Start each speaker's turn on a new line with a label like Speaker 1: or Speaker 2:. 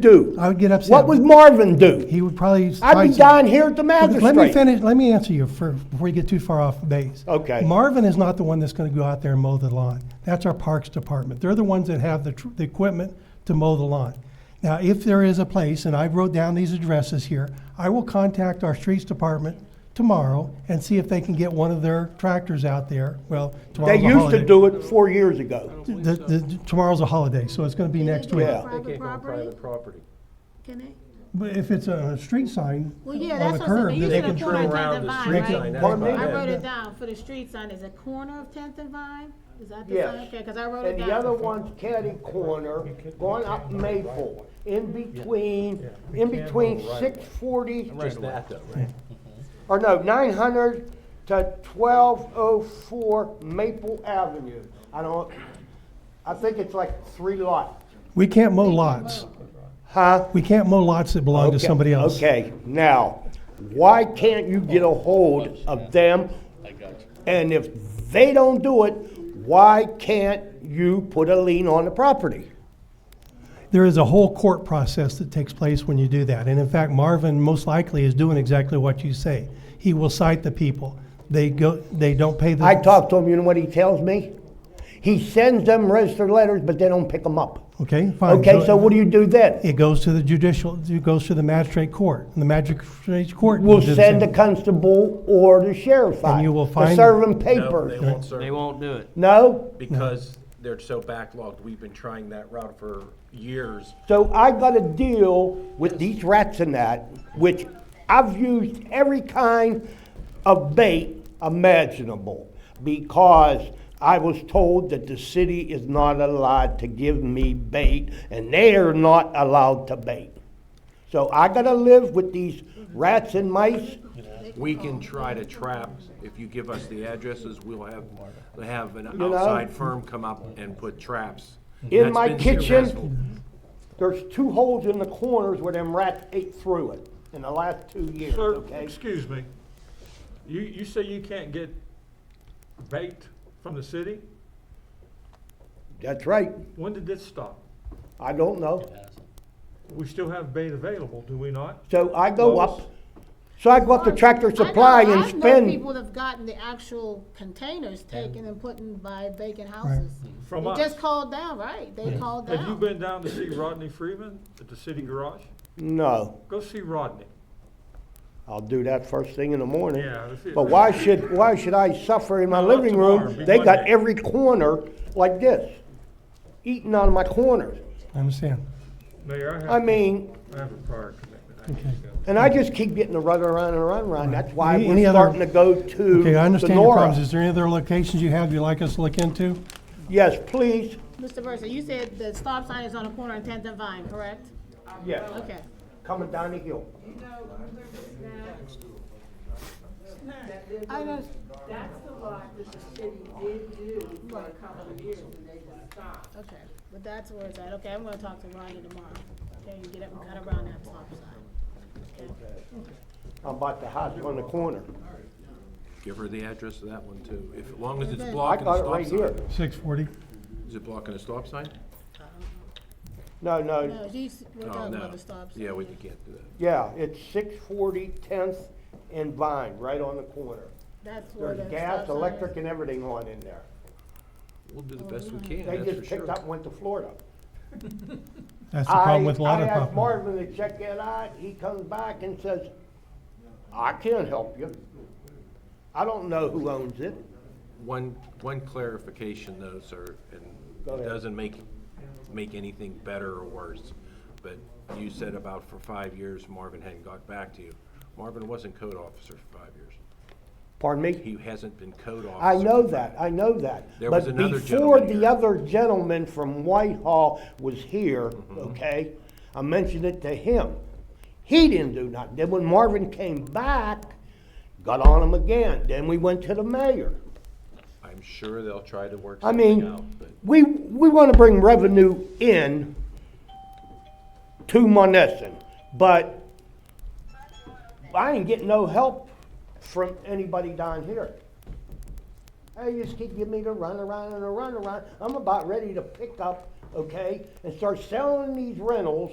Speaker 1: do?
Speaker 2: I would get upset.
Speaker 1: What would Marvin do?
Speaker 2: He would probably.
Speaker 1: I'd
Speaker 2: fight
Speaker 1: be
Speaker 2: you.
Speaker 1: down here at the magistrate.
Speaker 2: Let me finish, let me answer you first, before you get too far off base.
Speaker 1: Okay.
Speaker 2: Marvin is not the one that's gonna go out there and mow the lawn. That's our Parks Department. They're the ones that have the, tr- the equipment to mow the lawn. Now, if there is a place, and I wrote down these addresses here, I will contact our Streets Department tomorrow and see if they can get one of their tractors out there. Well, tomorrow's
Speaker 1: They
Speaker 2: a
Speaker 1: used
Speaker 2: holiday.
Speaker 1: to do it four years ago.
Speaker 2: The, the, tomorrow's a holiday, so it's gonna be next week.
Speaker 1: Yeah.
Speaker 3: Private
Speaker 4: They can't go on
Speaker 3: property?
Speaker 4: private property.
Speaker 3: Can they?
Speaker 2: But if it's a street sign
Speaker 3: Well,
Speaker 2: on
Speaker 3: yeah,
Speaker 2: a
Speaker 3: that's what I'm
Speaker 2: curb,
Speaker 3: saying.
Speaker 2: then
Speaker 3: You
Speaker 2: they
Speaker 3: said
Speaker 2: can
Speaker 3: a
Speaker 2: try.
Speaker 3: corner of
Speaker 4: turn around
Speaker 3: Tenth and
Speaker 4: the
Speaker 3: Vine,
Speaker 4: street
Speaker 3: right?
Speaker 4: sign, that's
Speaker 1: Pardon me?
Speaker 3: I
Speaker 4: about
Speaker 3: wrote
Speaker 4: it.
Speaker 3: it down for the street sign, is it corner of Tenth and Vine? Is that the
Speaker 1: Yes.
Speaker 3: sign? Okay, cause I wrote it
Speaker 1: And
Speaker 3: down.
Speaker 1: the other one's catty corner, going up Maple, in between, in between six forty,
Speaker 4: Just that though, right?
Speaker 1: or no, nine hundred to twelve oh four Maple Avenue. I don't, I think it's like three lots.
Speaker 2: We can't mow lots.
Speaker 1: Huh?
Speaker 2: We can't mow lots that belong to
Speaker 1: Okay,
Speaker 2: somebody else.
Speaker 1: Okay, now, why can't you get a hold of them? And if they don't do it, why can't you put a lien on the property?
Speaker 2: There is a whole court process that takes place when you do that. And in fact, Marvin most likely is doing exactly what you say. He will cite the people. They go, they don't pay the.
Speaker 1: I talk to him, you know what he tells me? He sends them registered letters, but they don't pick them up.
Speaker 2: Okay, fine.
Speaker 1: Okay, so what do you do then?
Speaker 2: It goes to the judicial, it goes to the magistrate court. And the magistrate court. will
Speaker 1: We'll
Speaker 2: do the
Speaker 1: send the
Speaker 2: same.
Speaker 1: constable or the sheriff out.
Speaker 2: you will
Speaker 1: To
Speaker 2: find-
Speaker 1: serve them
Speaker 4: No, they
Speaker 1: papers.
Speaker 4: won't serve
Speaker 5: They won't do it.
Speaker 1: No?
Speaker 4: because they're so backlogged. We've been trying that route for years.
Speaker 1: So I gotta deal with these rats and that, which I've used every kind of bait imaginable because I was told that the city is not allowed to give me bait and they are not allowed to bait. So I gotta live with these rats and mice.
Speaker 4: We can try to trap, if you give us the addresses, we'll have, we'll have an
Speaker 1: know?
Speaker 4: outside firm come up and put traps.
Speaker 1: In
Speaker 4: That's
Speaker 1: my
Speaker 4: been
Speaker 1: kitchen.
Speaker 4: successful.
Speaker 1: There's two holes in the corners where them rats ate through it in the last two years,
Speaker 6: Sir,
Speaker 1: okay?
Speaker 6: excuse me. You, you say you can't get bait from the city?
Speaker 1: That's right.
Speaker 6: When did this stop?
Speaker 1: I don't know.
Speaker 6: We still have bait available, do we not?
Speaker 1: So I go
Speaker 6: Lois?
Speaker 1: up, so I go up to Tractor Supply and
Speaker 3: I know people
Speaker 1: spend,
Speaker 3: that have gotten the actual containers taken and put in by vacant houses.
Speaker 6: From
Speaker 3: They
Speaker 6: us.
Speaker 3: just called down, right? They called down.
Speaker 6: Have you been down to see Rodney Freeman at the city garage?
Speaker 1: no,
Speaker 6: Go see Rodney.
Speaker 1: I'll do that first thing in the morning.
Speaker 6: Yeah, that's it.
Speaker 1: But why should, why should I suffer in my
Speaker 6: Not
Speaker 1: living
Speaker 6: tomorrow,
Speaker 1: room?
Speaker 6: be
Speaker 1: They got
Speaker 6: Monday.
Speaker 1: every corner like this, eating out of my corners.
Speaker 2: I understand.
Speaker 6: Mayor, I have.
Speaker 1: I mean,
Speaker 6: I have a prior commitment. I have to go.
Speaker 1: and I just keep getting the run around and run around. That's why
Speaker 2: Any-
Speaker 1: we're
Speaker 2: any other-
Speaker 1: starting to go to
Speaker 2: Okay, I understand your problems.
Speaker 1: Sonora.
Speaker 2: Is there any other locations you have you'd like us to look into?
Speaker 1: Yes, please.
Speaker 3: Mr. Burson, you said the stop sign is on the corner of Tenth and Vine, correct?
Speaker 1: Yes,
Speaker 3: Okay.
Speaker 1: coming down the hill.
Speaker 3: I know,
Speaker 7: That's the lot that the city did do for a couple of years and they just stopped.
Speaker 3: okay, but that's where it's at. Okay, I'm gonna talk to Rodney tomorrow. Okay, and get up and cut around that stop sign.
Speaker 1: I'm about to hide on the corner.
Speaker 4: Give her the address of that one too, if, as long as it's
Speaker 1: I
Speaker 4: blocking the
Speaker 1: got it
Speaker 4: stop
Speaker 1: right here.
Speaker 4: sign.
Speaker 2: Six forty.
Speaker 4: Is it blocking the stop sign?
Speaker 1: No, no,
Speaker 3: No, he's, we're
Speaker 4: Oh,
Speaker 3: talking
Speaker 4: no.
Speaker 3: about the stop sign.
Speaker 4: Yeah, we can't do that.
Speaker 1: Yeah, it's six forty Tenth and Vine, right on the corner.
Speaker 3: That's where the
Speaker 1: There's
Speaker 3: stop sign
Speaker 1: gas,
Speaker 3: is.
Speaker 1: electric, and everything on in there.
Speaker 4: We'll do the best we can,
Speaker 1: They
Speaker 4: that's for
Speaker 1: just picked
Speaker 4: sure.
Speaker 1: up and went to Florida.
Speaker 2: That's the problem
Speaker 1: I-
Speaker 2: with a lot of
Speaker 1: I asked
Speaker 2: property.
Speaker 1: Marvin to check that out, he comes back and says, I can't help you. I don't know who owns it.
Speaker 4: One, one clarification though, sir,
Speaker 1: Go ahead.
Speaker 4: and it doesn't make, make anything better or worse, but you said about for five years Marvin hadn't got back to you. Marvin wasn't code officer for five years.
Speaker 1: Pardon me?
Speaker 4: He hasn't been code officer.
Speaker 1: I know
Speaker 4: for
Speaker 1: that, I know that.
Speaker 4: There was another
Speaker 1: But
Speaker 4: gentleman
Speaker 1: before the
Speaker 4: here.
Speaker 1: other gentleman from Whitehall was here,
Speaker 4: Mm-hmm.
Speaker 1: okay, I mentioned it to him. He didn't do nothing. Then when Marvin came back, got on him again. Then we went to the mayor.
Speaker 4: five- I'm sure they'll try to work
Speaker 1: I
Speaker 4: something out,
Speaker 1: mean,
Speaker 4: but
Speaker 1: we, we wanna bring revenue in to Monessen, but I ain't getting no help from anybody down here. They just keep giving me the runaround and the runaround. I'm about ready to pick up, okay, and start selling these rentals